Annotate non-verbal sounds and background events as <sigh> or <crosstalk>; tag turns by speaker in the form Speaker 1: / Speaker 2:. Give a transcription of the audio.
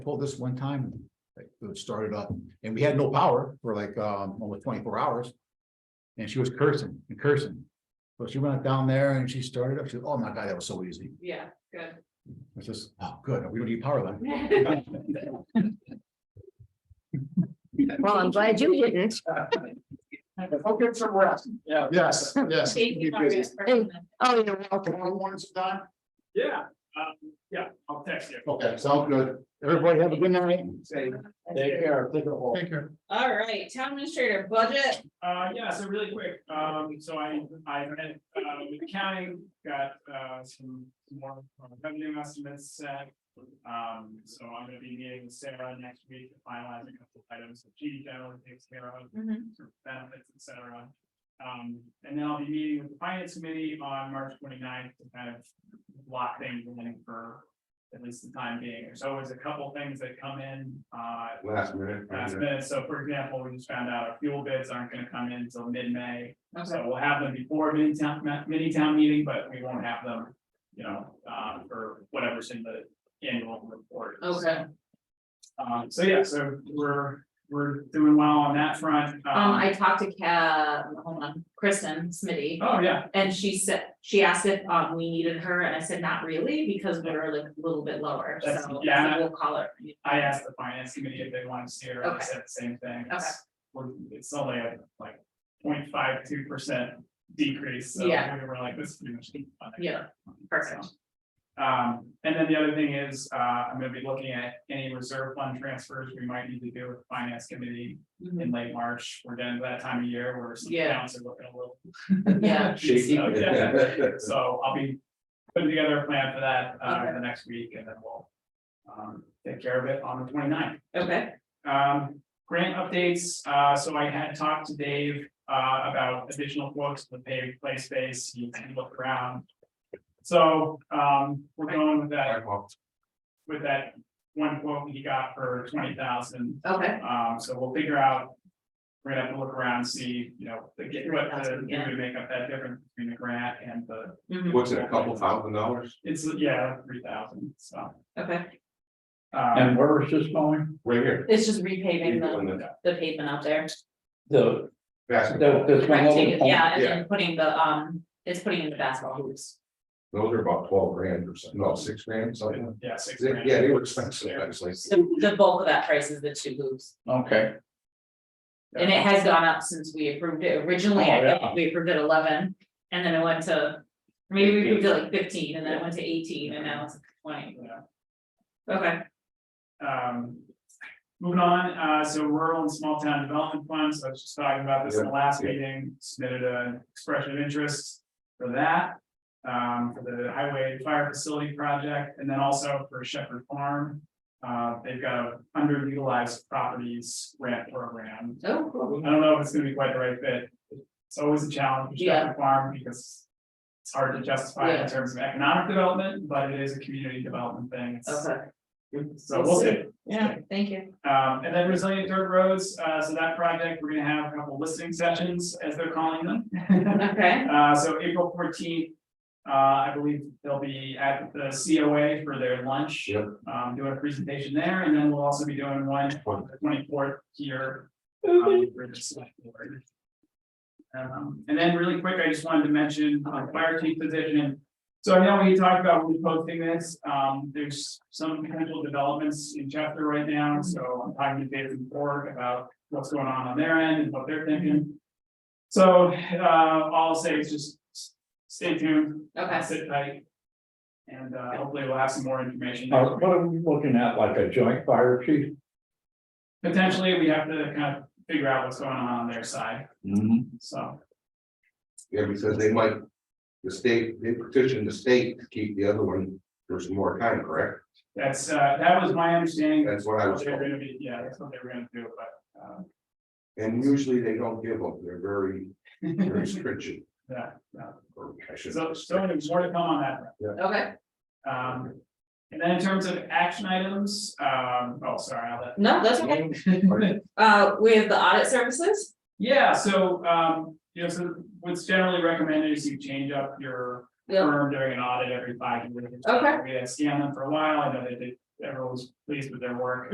Speaker 1: pulled this one time, like, it started up, and we had no power for like, um, almost twenty-four hours. And she was cursing and cursing, but she went down there and she started up, she, oh my God, that was so easy,
Speaker 2: Yeah, good.
Speaker 1: it's just, oh, good, we don't need power then.
Speaker 3: Well, I'm glad you didn't.
Speaker 1: I'll get some rest.
Speaker 4: Yeah.
Speaker 1: Yes, yes.
Speaker 2: Thank you,
Speaker 1: keep busy.
Speaker 2: Margaret, for coming.
Speaker 3: Oh, you're welcome.
Speaker 1: Tomorrow morning sometime?
Speaker 4: Yeah, um, yeah, I'll text you.
Speaker 1: Okay, sounds good, everybody have a good night.
Speaker 4: Take
Speaker 1: care. Take care.
Speaker 2: All right, town administrator budget,
Speaker 4: Uh, yeah, so really quick, um, so I, I met, uh, with the county, got, uh, some some more revenue estimates set. Um, so I'm gonna be meeting with Sarah next week to finalize a couple of items that she generally takes care of.
Speaker 2: Mhm.
Speaker 4: sort of benefits, et cetera. Um, and then I'll be meeting with the finance committee on March 29th to kind of block things in for at least the time being. There's always a couple things that come in, uh,
Speaker 5: Last minute.
Speaker 4: last minute. So for example, we just found out our fuel bids aren't gonna come in until mid-May.
Speaker 2: okay,
Speaker 4: So we'll have them before mini town, mini town meeting, but we won't have them, you know, uh, for whatever's in the annual report.
Speaker 2: okay,
Speaker 4: Um, so yeah, so we're, we're doing well on that front.
Speaker 2: um, I talked to Ca, hold on, Kristen Smitty,
Speaker 4: Oh, yeah,
Speaker 2: and she said, she asked if, um, we needed her, and I said, not really, because we're like a little bit lower, so.
Speaker 4: That's-
Speaker 2: so
Speaker 4: yeah.
Speaker 2: We'll call her.
Speaker 4: I asked the finance committee if they wanted to see her, and
Speaker 2: Okay.
Speaker 4: they said the same thing. It's- we're- It's only a like 0.52 percent decrease, so we
Speaker 2: Yeah.
Speaker 4: were like, this is pretty much. nothing.
Speaker 2: Yeah, perfect.
Speaker 4: Um, and then the other thing is, uh, I'm gonna be looking at any reserve fund transfers we might need to do with the finance committee
Speaker 2: Mhm.
Speaker 4: in late March. We're getting to that time of year where some
Speaker 2: Yeah.
Speaker 4: towns are looking a little
Speaker 2: Yeah,
Speaker 5: Shaky.
Speaker 4: So, yeah. So I'll be putting together a plan for that, uh, in the next week and then we'll. Um, take care of it on the 29th.
Speaker 2: okay,
Speaker 4: Um, grant updates, uh, so I had talked to Dave, uh, about additional books, the paved play space, you can look around. So, um, we're going with that, with that one quote he got for twenty thousand.
Speaker 2: okay,
Speaker 4: Um, so we'll figure out. We're gonna have to look around, see, you know, the, get what the,
Speaker 2: Yeah.
Speaker 4: to make up that difference between the grant and the,
Speaker 2: mhm,
Speaker 5: What's it, a couple thousand dollars?
Speaker 4: it's, yeah, three thousand, so.
Speaker 2: okay,
Speaker 4: Um,
Speaker 1: where is this going?
Speaker 5: Right here.
Speaker 2: it's just repaving
Speaker 5: On
Speaker 2: the,
Speaker 5: the
Speaker 2: the pavement out there.
Speaker 6: The, the,
Speaker 5: basketball.
Speaker 6: the swing
Speaker 2: Right, take
Speaker 6: over
Speaker 2: it,
Speaker 6: pole.
Speaker 2: yeah, and then putting the, um, it's putting in the basketball hoops.
Speaker 5: Those are about twelve grand or something, no, six grand, something.
Speaker 4: yeah, six. grand.
Speaker 5: Yeah, they were expensive, actually.
Speaker 2: The, the bulk of that price is the two hoops,
Speaker 6: Okay,
Speaker 2: and it has gone up since we approved it originally,
Speaker 6: Oh,
Speaker 2: I
Speaker 6: yeah.
Speaker 2: think we approved it eleven, and then it went to. Maybe we approved it like fifteen, and then it went to eighteen, and now it's twenty,
Speaker 4: Yeah.
Speaker 2: okay,
Speaker 4: Um, moving on, uh, so rural and small town development funds, I was just talking about this in the last
Speaker 5: Yeah.
Speaker 4: meeting, submitted an expression of interest for that. Um, for the highway and fire facility project, and then also for Shepherd Farm. Uh, they've got a underutilized properties grant program,
Speaker 2: oh, cool,
Speaker 4: I don't know if it's gonna be quite the right fit. It's always a challenge for
Speaker 2: Yeah.
Speaker 4: Shepherd Farm because. It's hard to justify
Speaker 2: Yeah.
Speaker 4: in terms of economic development, but it is a community development thing, It's-
Speaker 2: okay,
Speaker 4: so we'll see.
Speaker 2: yeah, thank you,
Speaker 4: Um, and then resilient dirt roads, uh, so that project, we're gonna have a couple listening sessions, as they're calling
Speaker 2: <laughs>
Speaker 4: them.
Speaker 2: okay,
Speaker 4: Uh, so April fourteenth, uh, I believe they'll be at the COA for their lunch.
Speaker 5: Yep.
Speaker 4: Um, doing a presentation there, and then we'll also be doing one on the twenty-fourth here. um, for the select board. Um, and then really quick, I just wanted to mention uh, fire chief position. So I know we talked about reposting this, um, there's some potential developments in Chester right now, so I'm talking to David Ford about what's going on on their end and what they're thinking. So, uh, all I'll say is just s- stay tuned,
Speaker 2: okay,
Speaker 4: sit tight. And, uh, hopefully we'll have some more information.
Speaker 6: Uh, what are we looking at, like a joint fire chief?
Speaker 4: Potentially, we have to kind of figure out what's going on on their side, so,
Speaker 5: Yeah, because they might, the state, they petitioned the state to keep the other one for some more time, correct?
Speaker 4: that's, uh, that was my understanding.
Speaker 5: That's what I was
Speaker 4: They're
Speaker 5: told.
Speaker 4: gonna be, yeah, that's what they were gonna do, but, uh,
Speaker 5: And usually they don't give up. They're very, very stringent.
Speaker 4: Yeah, yeah.
Speaker 5: Or I should-
Speaker 4: so, so there's more to come on that.
Speaker 2: okay,
Speaker 4: Um, and then in terms of action items, um, oh, sorry, I'll let.
Speaker 2: no, that's okay, uh, we have the audit services,
Speaker 4: Yeah, so, um, you know, so what's generally recommended is you change up your
Speaker 2: yeah,
Speaker 4: firm during an audit every five years.
Speaker 2: Okay.
Speaker 4: We had scanned them for a while, I know they did, everyone's pleased with their work.